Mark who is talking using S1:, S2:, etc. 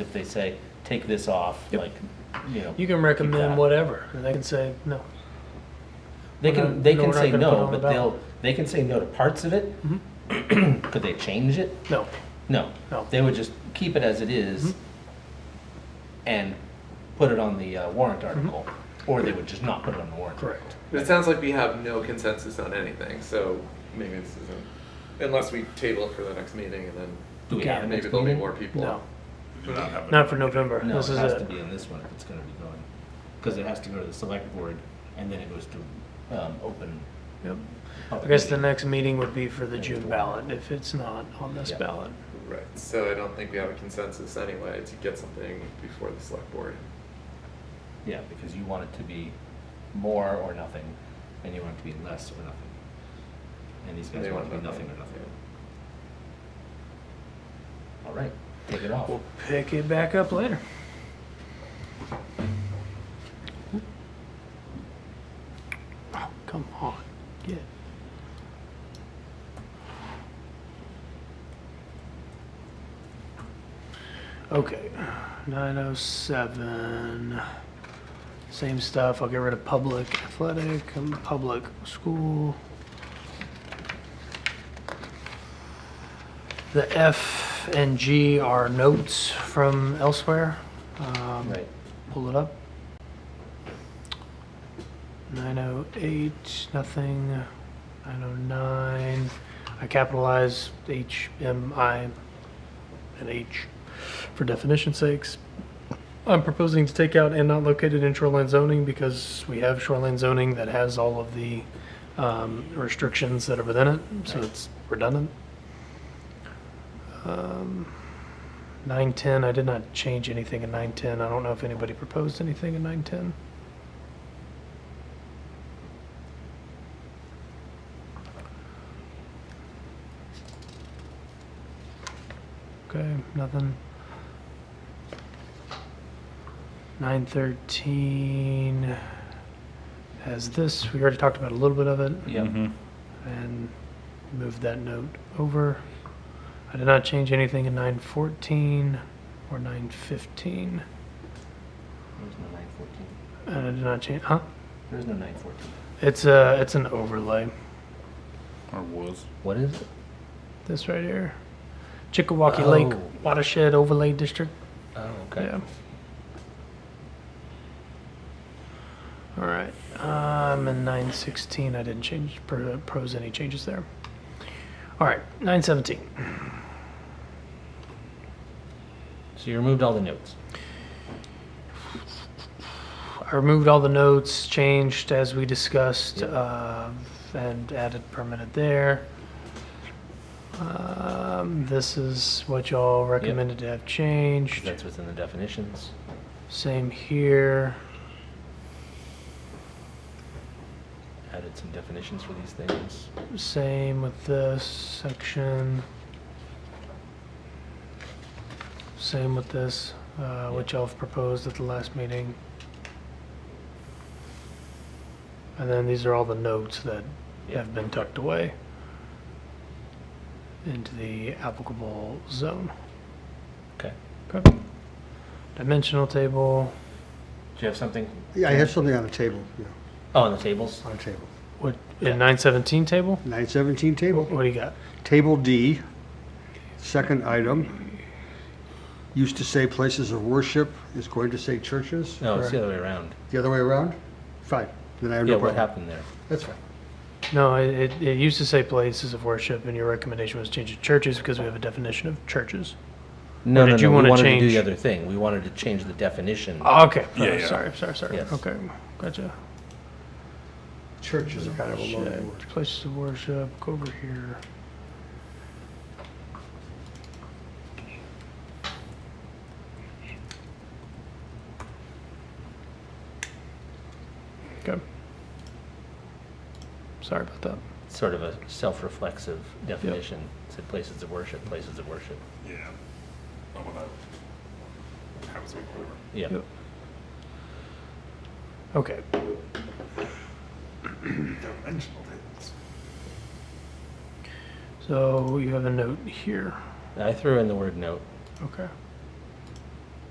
S1: if they say, take this off,
S2: Yep.
S1: like, you know.
S2: You can
S1: keep
S2: recommend
S1: that.
S2: whatever, and they can say, no.
S1: They
S2: we're
S1: can,
S2: not-
S1: they
S2: no,
S1: can
S2: we're not
S1: say
S2: gonna put
S1: no,
S2: it on the
S1: but they'll,
S2: ballot.
S1: they can say no to parts of it.
S2: Mhm.
S1: Could they change it?
S2: No,
S1: No.
S2: No.
S1: They would just keep it as it is
S2: Mhm.
S1: and put it on the uh, warrant article, or they would just not put it on the warrant.
S2: Mm-hmm. correct.
S3: But it sounds like we have no consensus on anything, so maybe this isn't, unless we table it for the next meeting and then
S1: Do we have a
S2: Yeah,
S3: maybe
S1: next
S3: there'll be
S1: meeting?
S3: more people.
S2: No,
S4: Do not have it.
S2: not for November.
S1: No, it
S2: This is
S1: has to
S2: it.
S1: be in this one if it's gonna be going, because it has to go to the select board and then it goes to, um, open.
S2: Yep. I
S1: public
S2: guess the
S1: meeting.
S2: next meeting would be for the June ballot, if it's not on this
S1: Yeah.
S2: ballot.
S3: Right, so I don't think we have a consensus anyway to get something before the select board.
S1: Yeah, because you want it to be more or nothing, and you want it to be less or nothing. And these guys
S3: They
S1: want it to be
S3: want
S1: nothing
S3: nothing.
S1: or nothing. All right, take it off.
S2: We'll pick it back up later. Oh, come on, get it. Okay, nine oh seven. Same stuff, I'll get rid of public athletic and public school. The F and G are notes from elsewhere. Um,
S1: Right.
S2: Pull it up. 908, nothing. 909. I capitalize H, M, I, and H for definition sakes. I'm proposing to take out and not located in shoreline zoning because we have shoreline zoning that has all of the um, restrictions that are within it, so it's redundant. Um, 910, I did not change anything in 910. I don't know if anybody proposed anything in 910. Okay, nothing. 913 has this. We already talked about a little bit of it
S1: Yeah,
S2: and move that note over. I did not change anything in 914 or 915,
S1: there's no nine fourteen.
S2: and I did not change. Huh?
S1: There's no nine fourteen.
S2: It's a it's an overlay.
S4: Or was.
S1: What is it?
S2: This right here, Chickawaukee Lake
S1: Oh.
S2: Watershed Overlay District.
S1: Oh,
S2: Yeah. All right. Um, and 916, I didn't change pro- pros any changes there. All right, 917.
S1: So you removed all the notes.
S2: I removed all the notes, changed as we discussed,
S1: Yep.
S2: uh, and added permanent there. Um, This is what y'all recommended to have changed.
S1: That's within the definitions.
S2: Same here.
S1: Added some definitions for these things.
S2: Same with this section. Same with this, uh, which y'all have proposed at the last meeting. And then these are all the notes that
S1: Yeah.
S2: have been tucked away into the applicable zone.
S1: Okay.
S2: Okay. Dimensional table,
S1: Do you have something?
S5: Yeah, I have something on the table, yeah,
S1: Oh, on the tables?
S5: on the table.
S2: what, in nine seventeen table?
S5: Nine seventeen table,
S2: What do you got?
S5: table D, second item. Used to say places of worship, is going to say churches,
S1: No, it's the other way around.
S5: the other way around? Fine, then I have
S1: Yeah,
S5: no
S1: what
S5: problem.
S1: happened there?
S5: That's fine.
S2: No, it, it, it used to say places of worship, and your recommendation was change it to churches because we have a definition of churches.
S1: No,
S2: did
S1: no,
S2: you
S1: no, we
S2: wanna
S1: wanted to do
S2: change-
S1: the other thing. We wanted to change the definition.
S2: Oh, okay.
S4: Yeah,
S2: Oh,
S4: yeah.
S2: Sorry, sorry, sorry.
S1: Yes.
S2: Okay, gotcha.
S5: Churches are kind of a loaded word.
S2: Shit. Places of worship, go over here. Okay. Sorry about that.
S1: Sort of a self-reflexive definition. Said places of worship, places of worship.
S4: Yeah. Oh, well, that happens with whatever.
S1: Yeah.
S2: Yep. Okay.
S4: Dimensional tables.
S2: So you have a note here.
S1: I threw in the word note.
S2: Okay.